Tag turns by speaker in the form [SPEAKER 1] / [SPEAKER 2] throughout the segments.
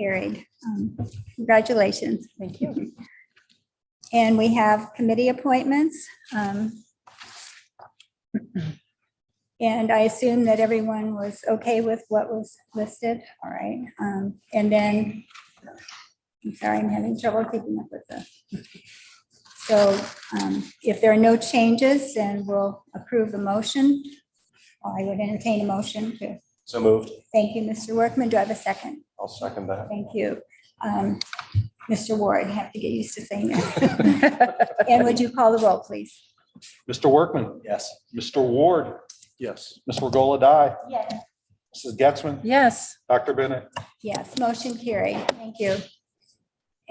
[SPEAKER 1] carried. Um, Congratulations.
[SPEAKER 2] Thank you.
[SPEAKER 1] And we have committee appointments. um, And I assume that everyone was okay with what was listed, all right? um, And then, I'm sorry, I'm having trouble keeping up with this. So um, if there are no changes, then we'll approve the motion. I would entertain a motion to,
[SPEAKER 3] So moved.
[SPEAKER 1] thank you, Mr. Workman. Do I have a second?
[SPEAKER 3] I'll second that.
[SPEAKER 1] Thank you. Um, Mr. Ward, I have to get used to saying that. And would you call the roll, please?
[SPEAKER 4] Mr. Workman.
[SPEAKER 3] Yes.
[SPEAKER 4] Mr. Ward.
[SPEAKER 3] Yes.
[SPEAKER 4] Ms. Regola Dye.
[SPEAKER 1] Yes.
[SPEAKER 4] Mrs. Getzmann.
[SPEAKER 2] Yes,
[SPEAKER 4] Dr. Bennett.
[SPEAKER 1] Yes, motion carried. Thank you.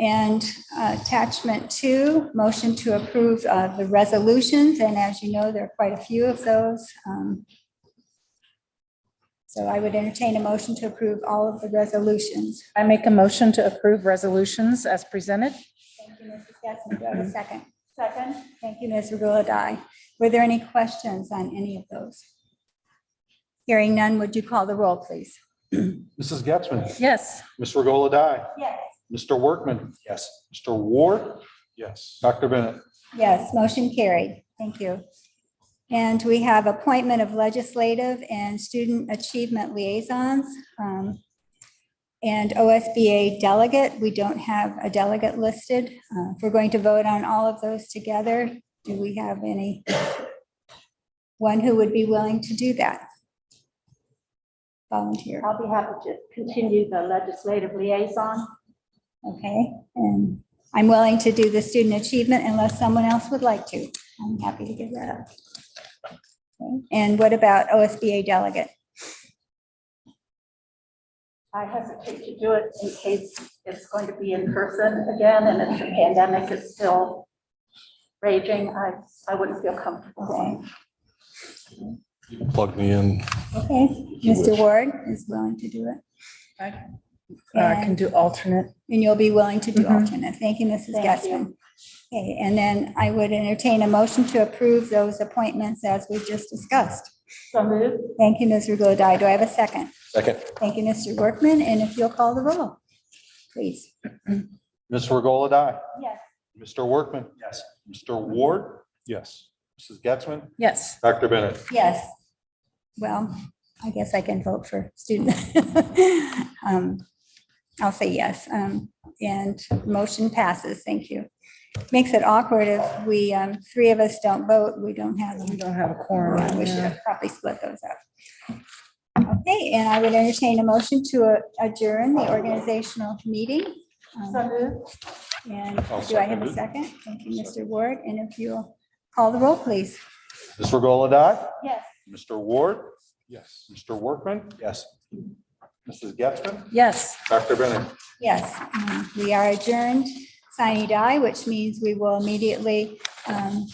[SPEAKER 1] And uh, attachment two, motion to approve uh, the resolutions. And as you know, there are quite a few of those. Um, So I would entertain a motion to approve all of the resolutions.
[SPEAKER 2] I make a motion to approve resolutions as presented.
[SPEAKER 1] Thank you, Mrs. Getzmann. Do I have a second? Second. Thank you, Ms. Regola-Dye. Were there any questions on any of those? Hearing none, would you call the roll, please?
[SPEAKER 4] Mrs. Getzmann.
[SPEAKER 2] Yes,
[SPEAKER 4] Ms. Regola Dye.
[SPEAKER 1] Yes.
[SPEAKER 4] Mr. Workman.
[SPEAKER 3] Yes.
[SPEAKER 4] Mr. Ward.
[SPEAKER 3] Yes.
[SPEAKER 4] Dr. Bennett.
[SPEAKER 1] Yes, motion carried. Thank you. And we have appointment of legislative and student achievement liaisons. um, And OSBA delegate, we don't have a delegate listed. Uh, If we're going to vote on all of those together, do we have any? One who would be willing to do that? Volunteer,
[SPEAKER 5] I'll be happy to continue the legislative liaison.
[SPEAKER 1] okay? And I'm willing to do the student achievement unless someone else would like to. I'm happy to give that up. And what about OSBA delegate?
[SPEAKER 5] I hesitate to do it in case it's going to be in person again and if the pandemic is still raging, I, I wouldn't feel comfortable
[SPEAKER 1] Okay,
[SPEAKER 5] going.
[SPEAKER 3] Plug me in.
[SPEAKER 1] okay. Mr. Ward is willing to do it.
[SPEAKER 2] Uh, can do alternate.
[SPEAKER 1] And you'll be willing to do
[SPEAKER 2] Mhm.
[SPEAKER 1] alternate. Thank you, Mrs.
[SPEAKER 5] Thank
[SPEAKER 1] Getzmann.
[SPEAKER 5] you.
[SPEAKER 1] Okay, and then I would entertain a motion to approve those appointments as we just discussed.
[SPEAKER 5] So moved?
[SPEAKER 1] Thank you, Ms. Regola-Dye. Do I have a second?
[SPEAKER 3] Second.
[SPEAKER 1] Thank you, Mr. Workman, and if you'll call the roll, please.
[SPEAKER 4] Ms. Regola Dye.
[SPEAKER 5] Yes.
[SPEAKER 4] Mr. Workman. Yes. Mr. Ward. Yes. Mrs. Getzmann.
[SPEAKER 2] Yes,
[SPEAKER 4] Dr. Bennett.
[SPEAKER 1] Yes. Well, I guess I can vote for student. Um, I'll say yes, um, and motion passes. Thank you. Makes it awkward if we, um, three of us don't vote, we don't have.
[SPEAKER 2] we don't have a quorum.
[SPEAKER 1] We should
[SPEAKER 2] Oh, yeah.
[SPEAKER 1] have probably split those up. Okay, and I would entertain a motion to uh, adjourn the organizational meeting. Um,
[SPEAKER 5] So moved?
[SPEAKER 1] And
[SPEAKER 4] I'll
[SPEAKER 1] do I have
[SPEAKER 4] second
[SPEAKER 1] a
[SPEAKER 4] it.
[SPEAKER 1] second? Thank you, Mr. Ward, and if you'll call the roll, please.
[SPEAKER 4] Ms. Regola Dye.
[SPEAKER 5] Yes.
[SPEAKER 4] Mr. Ward.
[SPEAKER 3] Yes.
[SPEAKER 4] Mr. Workman.
[SPEAKER 3] Yes.
[SPEAKER 4] Mrs. Getzmann.
[SPEAKER 2] Yes.
[SPEAKER 4] Dr. Bennett.
[SPEAKER 1] Yes, um, we are adjourned, sine die, which means we will immediately um,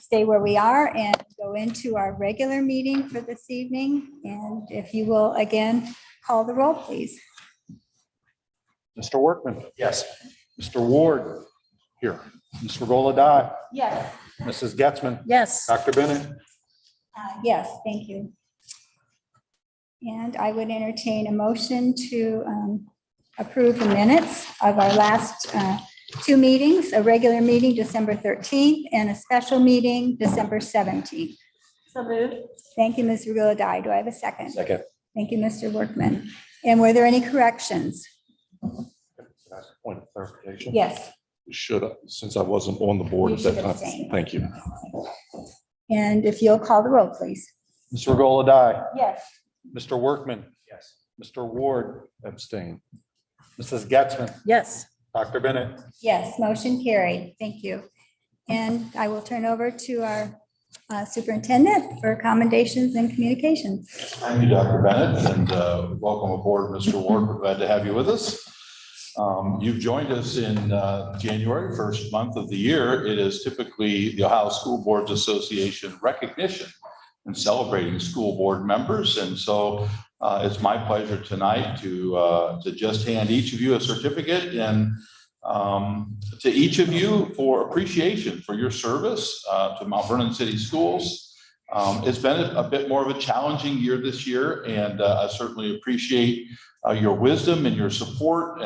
[SPEAKER 1] stay where we are and go into our regular meeting for this evening. And if you will, again, call the roll, please.
[SPEAKER 4] Mr. Workman.
[SPEAKER 3] Yes.
[SPEAKER 4] Mr. Ward. Here. Ms. Regola Dye.
[SPEAKER 5] Yes.
[SPEAKER 4] Mrs. Getzmann.
[SPEAKER 2] Yes.
[SPEAKER 4] Dr. Bennett.
[SPEAKER 1] Uh, Yes, thank you. And I would entertain a motion to um, approve the minutes of our last uh, two meetings, a regular meeting, December 13th, and a special meeting, December 17th.
[SPEAKER 5] So moved?
[SPEAKER 1] Thank you, Ms. Regola Dye. Do I have a second?
[SPEAKER 3] Second.
[SPEAKER 1] Thank you, Mr. Workman. And were there any corrections?
[SPEAKER 3] Point of clarification.
[SPEAKER 1] Yes.
[SPEAKER 3] Should, since I wasn't on the board
[SPEAKER 1] You
[SPEAKER 3] at
[SPEAKER 1] should
[SPEAKER 3] that time.
[SPEAKER 1] abstain.
[SPEAKER 3] Thank you.
[SPEAKER 1] And if you'll call the roll, please.
[SPEAKER 4] Ms. Regola Dye.
[SPEAKER 5] Yes.
[SPEAKER 4] Mr. Workman.
[SPEAKER 3] Yes.
[SPEAKER 4] Mr. Ward.
[SPEAKER 3] Abstain.
[SPEAKER 4] Mrs. Getzmann.
[SPEAKER 2] Yes.
[SPEAKER 4] Dr. Bennett.
[SPEAKER 1] Yes, motion carried. Thank you. And I will turn over to our uh, superintendent for commendations and communications.
[SPEAKER 6] Thank you, Dr. Bennett, and uh, welcome aboard, Mr. Ward. We're glad to have you with us. Um, You've joined us in uh, January, first month of the year. It is typically the Ohio School Boards Association recognition and celebrating school board members. And so uh, it's my pleasure tonight to, uh, to just hand each of you a certificate and um, to each of you for appreciation for your service uh, to Mount Vernon City Schools Um, It's been a bit more of a challenging year this year, and uh, I certainly appreciate uh, your wisdom and your support